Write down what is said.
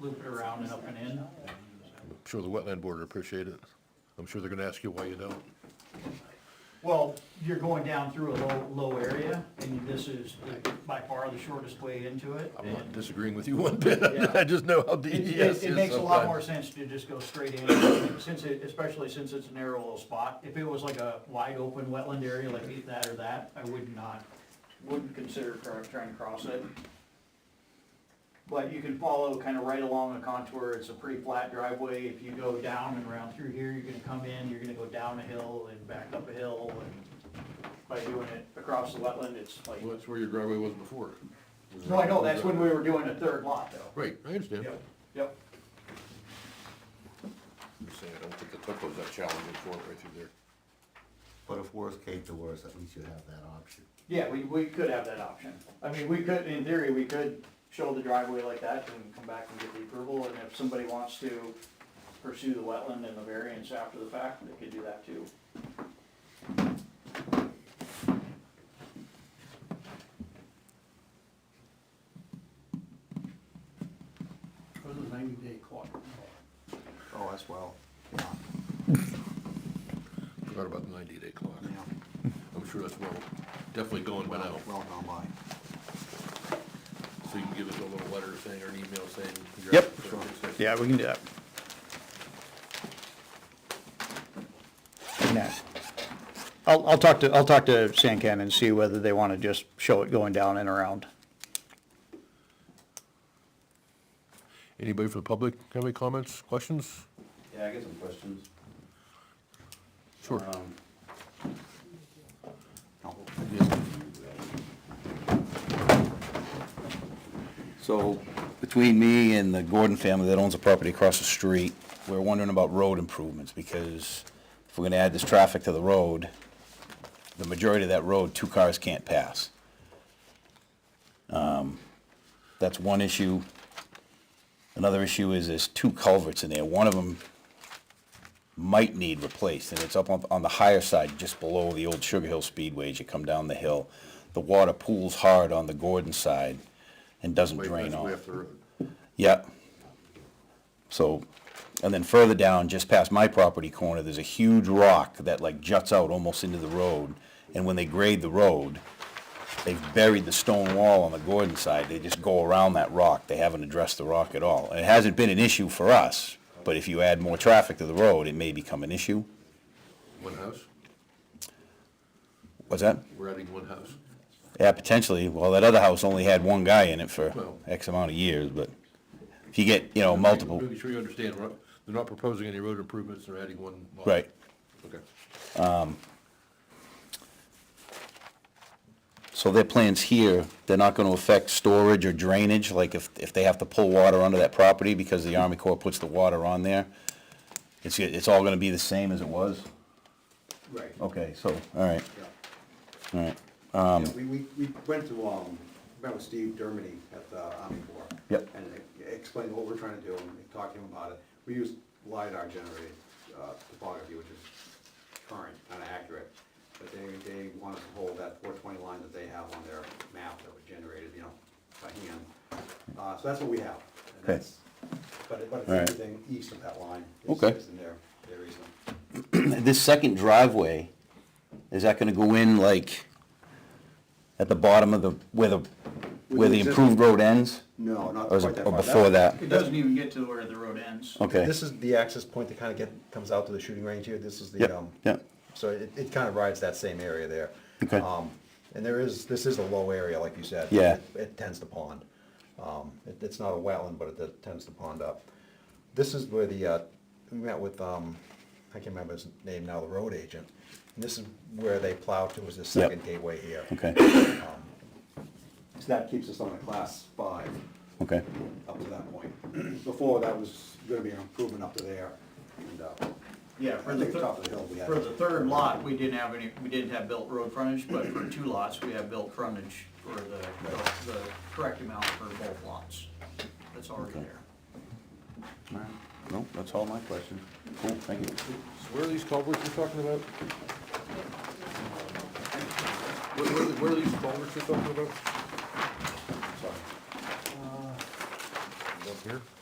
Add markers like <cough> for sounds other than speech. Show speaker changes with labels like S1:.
S1: loop it around and up and in.
S2: I'm sure the wetland board would appreciate it. I'm sure they're gonna ask you why you don't.
S1: Well, you're going down through a low, low area, and this is by far the shortest way into it.
S2: I'm not
S1: and
S2: disagreeing with you one bit.
S1: Yeah.
S2: <laughs> I just know how
S1: It,
S2: DES is
S1: it, it makes a lot more
S2: sometimes.
S1: sense to just go straight in, since it, especially since it's a narrow little spot. If it was like a wide open wetland area like that or that, I would not, wouldn't consider cr- trying to cross it. But you can follow kind of right along the contour, it's a pretty flat driveway, if you go down and around through here, you're gonna come in, you're gonna go down a hill and back up a hill, and by doing it across the wetland, it's like,
S2: Well, that's where your driveway was before.
S1: no, I know, that's when we were doing a third lot though.
S2: Right, I understand.
S1: Yep, yep.
S2: I'm just saying, I don't think the topo's that challenging for it right through there.
S3: But if worst came to worst, at least you have that option.
S1: Yeah, we, we could have that option. I mean, we could, in theory, we could show the driveway like that and come back and get the approval, and if somebody wants to pursue the wetland and the variance after the fact, they could do that too.
S4: was a ninety day clock.
S3: Oh, that's well, yeah,
S2: Forgot about the ninety-day clock.
S3: yeah,
S2: I'm sure that's well, definitely going by now.
S3: well gone by.
S2: So you can give us a little letter saying, or an email saying. your
S5: Yep.
S2: applicant's gonna fix this.
S5: Yeah, we can do that. And that- I'll, I'll talk to, I'll talk to Sancan and see whether they want to just show it going down and around.
S2: Anybody from the public have any comments, questions?
S6: Yeah, I got some questions.
S2: Sure.
S6: Um,
S3: No.
S6: So between me and the Gordon family that owns a property across the street, we're wondering about road improvements because if we're gonna add this traffic to the road, the majority of that road, two cars can't pass. Um, That's one issue. Another issue is there's two culverts in there. One of them might need replaced, and it's up on, on the higher side, just below the old Sugar Hill Speedway as you come down the hill. The water pools hard on the Gordon side and doesn't
S2: Wait,
S6: drain
S2: that's way
S6: off.
S2: up the road.
S6: Yep. So, and then further down, just past my property corner, there's a huge rock that like juts out almost into the road. And when they grade the road, they've buried the stone wall on the Gordon side. They just go around that rock. They haven't addressed the rock at all. And it hasn't been an issue for us, but if you add more traffic to the road, it may become an issue.
S2: One house?
S6: What's that?
S2: We're adding one house.
S6: Yeah, potentially. Well, that other house only had one guy in it for
S2: Well-
S6: X amount of years, but if you get, you know, multiple,
S2: Making sure you understand, we're not- they're not proposing any road improvements, they're adding one lot.
S6: right.
S2: Okay.
S6: So their plans here, they're not gonna affect storage or drainage, like if, if they have to pull water onto that property because the Army Corps puts the water on there? It's, it's all gonna be the same as it was?
S3: Right,
S6: Okay, so, all right,
S3: yeah.
S6: all right, <clears throat> Um,
S3: Yeah, We, we, we went to, um, met with Steve Dermody at the Army Corps.
S6: Yep.
S3: And explained what we're trying to do and talked to him about it. We use LiDAR generated, uh, topography, which is current, kinda accurate. But they, they want us to hold that four twenty line that they have on their map that was generated, you know, by hand. Uh, so that's what we have. and
S6: Okay.
S3: that's- But, it- but it's
S6: All right.
S3: everything east of that line. is-
S6: Okay.
S3: Is in their, their easement.
S6: This second driveway, is that gonna go in like at the bottom of the, where the, where the improved road ends?
S3: No, not
S6: Or is
S3: quite
S6: it,
S3: that
S6: or
S3: far.
S6: before that?
S1: It doesn't even get to where the road ends.
S6: Okay,
S7: This is the access point that kind of get, comes out to the shooting range here, this is
S6: Yep,
S7: the, um,
S6: yep.
S7: so it, it kind of rides that same area there.
S6: Okay.
S7: Um, And there is, this is a low area, like you said.
S6: Yeah.
S7: It- It tends to pond. Um, it, it's not a wetland, but it does- tends to pond up. This is where the, uh, we met with, um, I can't remember his name now, the road agent. And this is where they plow to, is the second gateway here. Um,
S6: okay,
S3: So that keeps us on a class five
S6: okay,
S3: up to that point. <clears throat> Before, that was gonna be an improvement up to there. and, uh,
S1: Yeah, for the,
S3: I think top of the hill we
S1: thir-
S3: had-
S1: for the third lot, we didn't have any, we didn't have built road frontage, but for two lots, we have built frontage for the, the correct amount for both lots. That's already
S6: Okay.
S1: there.
S6: all right. No, that's all my questions. Cool, thank you.
S2: So where are these culverts you're talking about? Where, where are the- where are these culverts you're talking about? Sorry. Up here?